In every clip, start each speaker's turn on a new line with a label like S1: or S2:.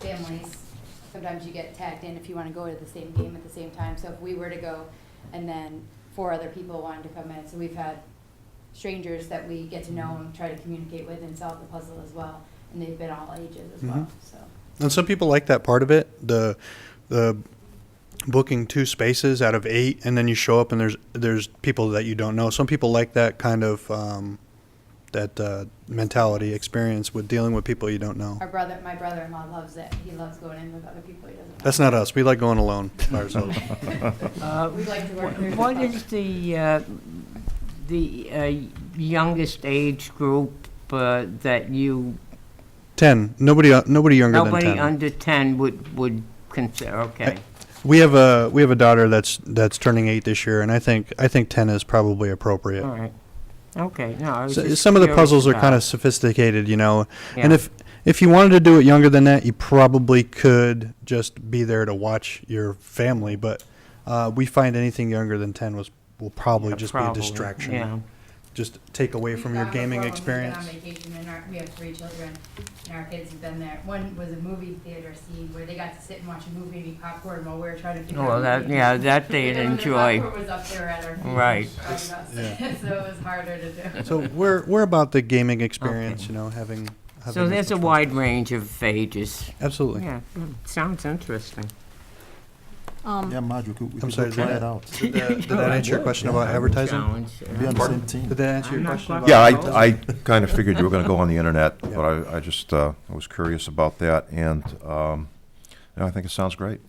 S1: families, sometimes you get tagged in if you wanna go to the same game at the same time, so if we were to go and then four other people wanted to come in, so we've had strangers that we get to know and try to communicate with and solve the puzzle as well, and they've been all ages as well, so.
S2: And some people like that part of it, the the booking two spaces out of eight, and then you show up and there's there's people that you don't know. Some people like that kind of um, that uh, mentality experience with dealing with people you don't know.
S1: Our brother, my brother-in-law loves it, he loves going in with other people he doesn't know.
S2: That's not us. We like going alone by ourselves.
S3: Uh,
S1: We like to work.
S3: wh- What is the, uh, the uh, youngest age group uh, that you,
S2: ten. Nobody uh, nobody younger
S3: nobody
S2: than ten.
S3: under 10 would, would consider, okay?
S2: we have a we have a daughter that's that's turning eight this year, and I think I think ten is probably appropriate.
S3: All right, okay, no, I was
S2: So,
S3: just
S2: some of the
S3: curious
S2: puzzles are
S3: about-
S2: kind of sophisticated, you know. And
S3: Yeah.
S2: if if you wanted to do it younger than that, you probably could just be there to watch your family. But uh, we find anything younger than ten was will probably
S3: Yeah,
S2: just be
S3: probably,
S2: a distraction.
S3: Yeah,
S2: Just take away from your gaming experience.
S1: We've gone before when we've been on vacation, and our, we have three children, and our kids have been there. One was a movie theater scene where they got to sit and watch a movie and eat popcorn while we were trying to figure out.
S3: well, that,
S1: movies.
S3: yeah, that they'd
S1: And when the
S3: enjoy.
S1: popcorn was up there at our feet.
S3: Right.
S1: showing us.
S2: Yeah.
S1: So it was harder to do.
S2: So we're we're about the gaming experience, you know, having. having
S3: So
S2: as
S3: there's a
S2: much fun.
S3: wide range of ages.
S2: Absolutely.
S3: Yeah, mm, sounds interesting.
S4: Yeah, Marge, we could, we
S2: I'm
S4: could
S2: sorry,
S4: go try
S2: did
S4: it out.
S2: Did, that- did that answer your question about advertising?
S3: Challenge, yeah.
S4: Be on the same team.
S2: Did that answer
S3: I'm
S2: your
S3: not
S2: question?
S3: quite
S2: About
S3: sure.
S5: Yeah,
S3: Well-
S5: I, I kind of figured you were gonna go on the internet,
S2: Yeah.
S5: but I, I just, uh, I was curious about that, and, um, you know, I think it sounds great.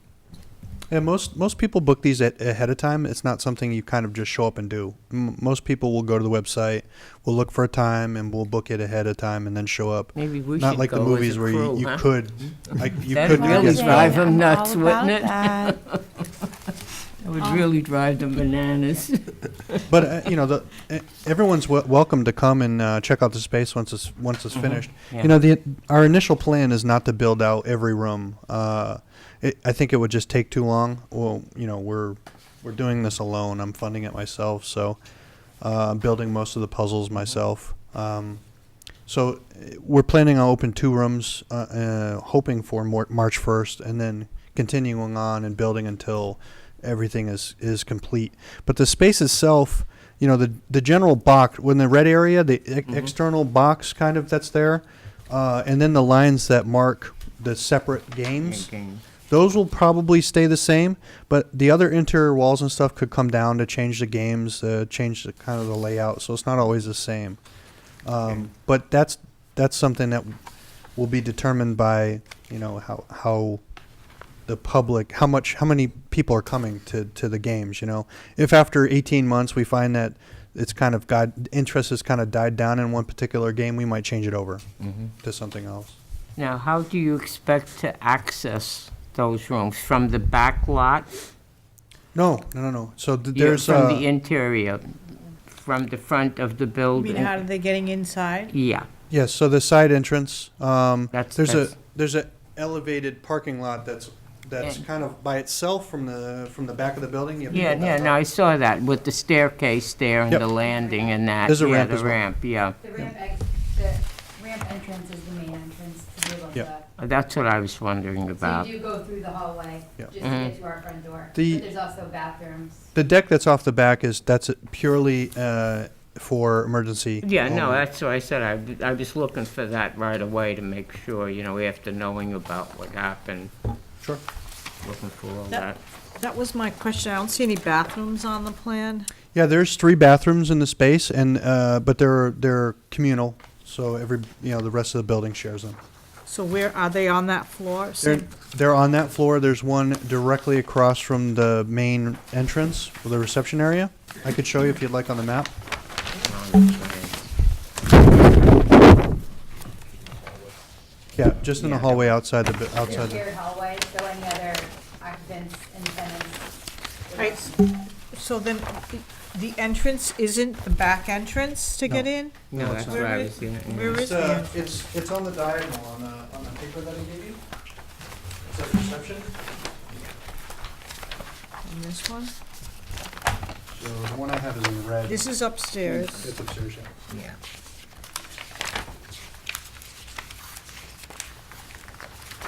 S2: Yeah, most most people book these at, ahead of time. It's not something you kind of just show up and do. M- most people will go to the website, will look for a time, and will book it ahead of time, and then show up.
S3: Maybe we should go
S2: not like the
S3: as a
S2: movies where
S3: crew,
S2: you, you
S3: huh?
S2: could, like you
S3: That
S2: could
S3: really
S2: get-
S3: drive them
S6: I'm
S3: nuts,
S6: all
S3: wouldn't
S6: about
S3: it?
S6: that.
S3: It would really drive them bananas.
S2: But uh, you know, the, eh, everyone's w- welcome to come and uh, check out the space once it's once it's finished.
S3: Yeah.
S2: You know, the our initial plan is not to build out every room. Uh, it, I think it would just take too long. Well, you know, we're we're doing this alone. I'm funding it myself, so uh, I'm building most of the puzzles myself. Um, so eh, we're planning on open two rooms, uh, uh, hoping for more, March 1st, and then continuing on and building until everything is, is complete. But the space itself, you know, the the general box, when the red area, the e- external box kind of that's there, uh, and then the lines that mark the separate games. Those will probably stay the same, but the other interior walls and stuff could come down to change the games, uh, change the kind of the layout. So it's not always the same. Um, but that's that's something that will be determined by you know how how the public how much how many people are coming to to the games. You know, if after 18 months we find that it's kind of got interest has kind of died down in one particular game, we might change it over to something else.
S3: Now, how do you expect to access those rooms? From the back lot?
S2: No, no, no, no. So th-
S3: You-
S2: there's
S3: From
S2: uh,
S3: the interior, from the front of the
S6: I
S3: building?
S6: mean, how are they getting inside?
S3: Yeah,
S2: Yes, so the side entrance, um,
S3: That's-
S2: there's a,
S3: that's-
S2: there's a elevated parking lot that's, that's
S3: Yeah.
S2: kind of by itself from the, from the back of the building. You have
S3: yeah,
S2: people
S3: yeah,
S2: that-
S3: no, I saw that with the staircase there and
S2: Yep.
S3: the landing and that.
S2: There's a ramp
S3: Yeah,
S2: as
S3: the
S2: well.
S3: ramp, yeah.
S1: The ramp ex, the ramp entrance is the main entrance to be able to,
S2: Yep.
S3: That's what I was wondering
S1: so
S3: about.
S1: you do go through the hallway
S2: Yep.
S1: just to
S3: Mm-hmm.
S1: get to our front door. But
S2: The-
S1: there's also bathrooms.
S2: The deck that's off the back is, that's purely, uh, for emergency.
S3: Yeah, no,
S2: only.
S3: that's what I said, I, I was looking for that right away to make sure, you know, after knowing about what happened,
S2: Sure.
S3: looking for all
S6: That-
S3: that.
S6: That was my question. I don't see any bathrooms on the plan.
S2: Yeah, there's three bathrooms in the space and, uh, but they're, they're communal, so every, you know, the rest of the building shares them.
S6: So where, are they on that floor?
S2: They're,
S6: Same-
S2: they're on that floor. There's one directly across from the main entrance, or the reception area. I could show you if you'd like on the map. Yeah, just in the hallway outside the, bu- outside the,
S1: Shared hallway, so any other occupants and tenants.
S6: Right, s- So then, the- the entrance isn't the back entrance to get in?
S3: No, that's what
S6: Where
S3: I
S6: is-
S3: was gonna-
S6: Where is
S2: it's,
S6: the
S2: uh,
S6: entrance?
S2: it's, it's on the diagonal on the, on the paper that I gave you. It says reception.
S6: On This one?
S2: So the one I have is in red.
S6: This is upstairs.
S2: It's upstairs, yeah.
S3: Yeah.